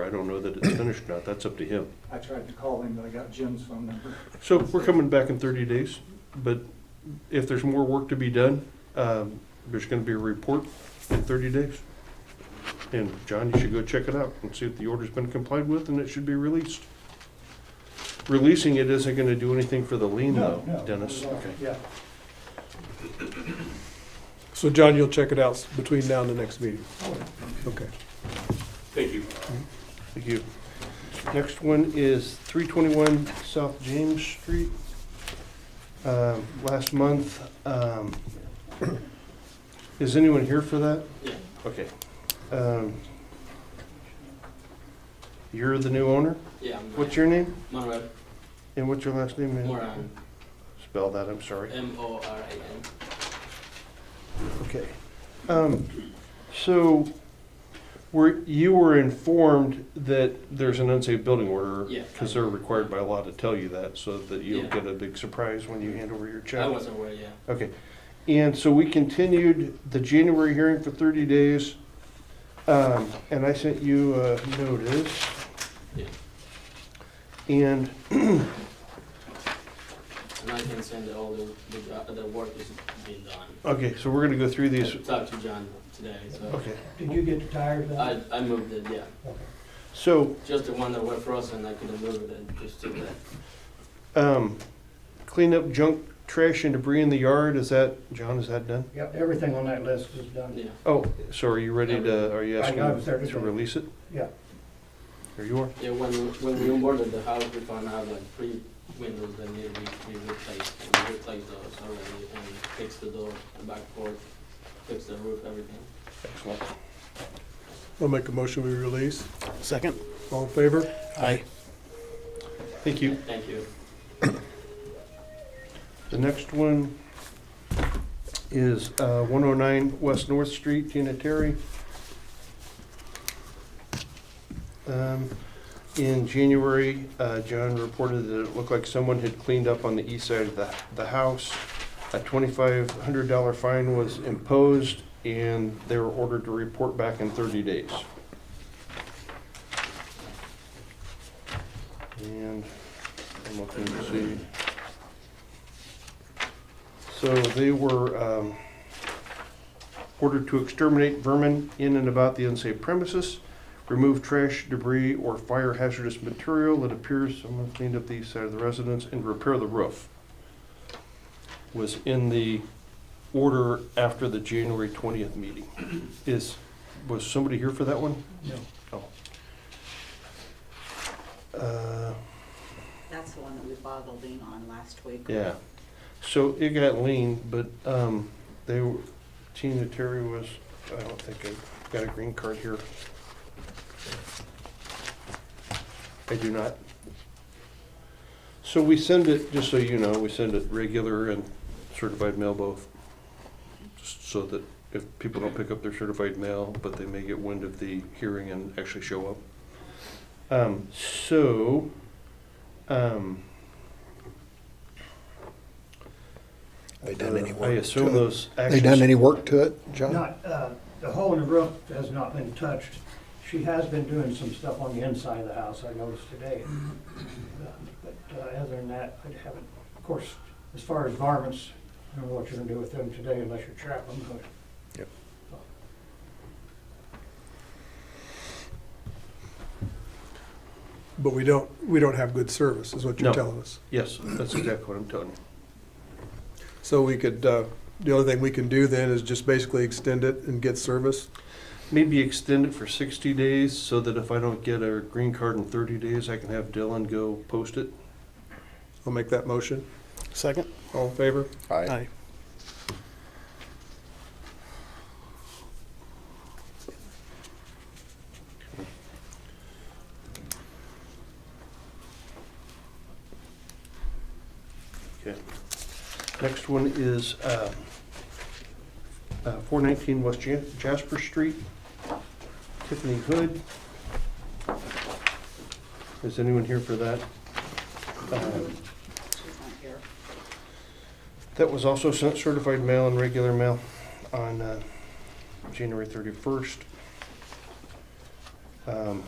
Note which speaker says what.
Speaker 1: I don't know that it's finished or not, that's up to him.
Speaker 2: I tried to call him, but I got Jim's phone number.
Speaker 1: So we're coming back in thirty days, but if there's more work to be done, um, there's gonna be a report in thirty days. And John, you should go check it out and see if the order's been complied with and it should be released. Releasing it isn't gonna do anything for the lien though,
Speaker 2: No, no,
Speaker 1: Dennis.
Speaker 2: not at all. Yeah,
Speaker 3: So John, you'll check it out s- between now and the next meeting? Okay.
Speaker 4: Thank you.
Speaker 1: Thank you. Next one is three twenty-one South James Street. Um, Last month, um, is anyone here for that?
Speaker 4: Yeah.
Speaker 1: Okay. Um, You're the new owner?
Speaker 4: Yeah, I'm
Speaker 1: What's your name?
Speaker 4: Moran.
Speaker 1: And what's your last name? man?
Speaker 4: Moran.
Speaker 1: Spell that, I'm sorry.
Speaker 4: M O R A N.
Speaker 1: Okay. Um, So, were, you were informed that there's an unsafe building order?
Speaker 4: Yeah.
Speaker 1: Because they're required by law to tell you that, so that you'll
Speaker 4: Yeah.
Speaker 1: get a big surprise when you hand over your check?
Speaker 4: I was aware, yeah.
Speaker 1: Okay. And so we continued the January hearing for 30 days, um, and I sent you a notice.
Speaker 4: Yeah.
Speaker 1: And,
Speaker 4: And I can send all the, the, jo- the work is being done.
Speaker 1: okay, so we're gonna go through Uh, these,
Speaker 4: I talked to John today, so
Speaker 1: okay.
Speaker 5: Did you get the tires out?
Speaker 4: I, I moved it, yeah.
Speaker 1: So,
Speaker 4: Just the one that were frozen, I couldn't move it, and just took that.
Speaker 1: um, clean up junk, trash and debris in the yard, is that, John, is that done?
Speaker 5: Yep, everything on that list is done.
Speaker 4: Yeah,
Speaker 1: Oh, so are you ready to, are you
Speaker 5: I got it,
Speaker 1: asking
Speaker 5: sir.
Speaker 1: to release it?
Speaker 5: Yeah.
Speaker 1: There you are.
Speaker 4: yeah, when, when we onboarded the house, we found out like three windows that needed to be replaced. And we replaced those already, and fixed the door, the back porch, fixed the roof, everything.
Speaker 1: Excellent.
Speaker 3: I'll make a motion, we release.
Speaker 6: Second?
Speaker 3: All in favor?
Speaker 6: Aye.
Speaker 1: Thank you.
Speaker 4: Thank you.
Speaker 1: The next one is uh, 109 West North Street, Tina Terry. Um, In January, uh, John reported that it looked like someone had cleaned up on the east side of the the house. A $2,500 fine was imposed, and they were ordered to report back in 30 days. And I'm looking to see. So they were um, ordered to exterminate vermin in and about the unsafe premises, remove trash, debris, or fire hazardous material that appears, someone cleaned up the east side of the residence, and repair the roof. Was in the order after the January 20th meeting. Is, was somebody here for that one?
Speaker 5: No.
Speaker 1: Oh. Uh,
Speaker 7: That's the one that we boggled in on last week.
Speaker 1: Yeah, so it got lean, but, um, they, were- Tina Terry was, I don't think I got a green card here. I do not. So we send it, just so you know, we send it regular and certified mail both. Just so that if people don't pick up their certified mail, but they may get wind of the hearing and actually show up. Um, so, um,
Speaker 6: They done any
Speaker 1: I
Speaker 6: work
Speaker 1: assume
Speaker 6: to it?
Speaker 1: those
Speaker 6: They
Speaker 1: actions.
Speaker 6: done any work to it, John?
Speaker 5: Not, uh, the hole in the roof has not been touched. She has been doing some stuff on the inside of the house, I noticed today. Uh, But uh, other than that, I haven't, of course, as far as varmints, I don't know what you're gonna do with them today unless you trap them, but
Speaker 3: But we don't, we don't have good service, is what you're
Speaker 1: No.
Speaker 3: telling us.
Speaker 1: Yes, that's exactly what I'm telling you.
Speaker 3: So we could, uh, the only thing we can do then is just basically extend it and get service?
Speaker 1: Maybe extend it for sixty days so that if I don't get a green card in thirty days, I can have Dylan go post it.
Speaker 3: I'll make that motion.
Speaker 6: Second?
Speaker 3: All in favor?
Speaker 6: Aye.
Speaker 1: Okay. Next one is, um, uh, four nineteen West Ja- Jasper Street, Tiffany Hood. Is anyone here for that? Um,
Speaker 7: She's not here.
Speaker 1: That was also sent certified mail and regular mail on uh, January 31st. Um,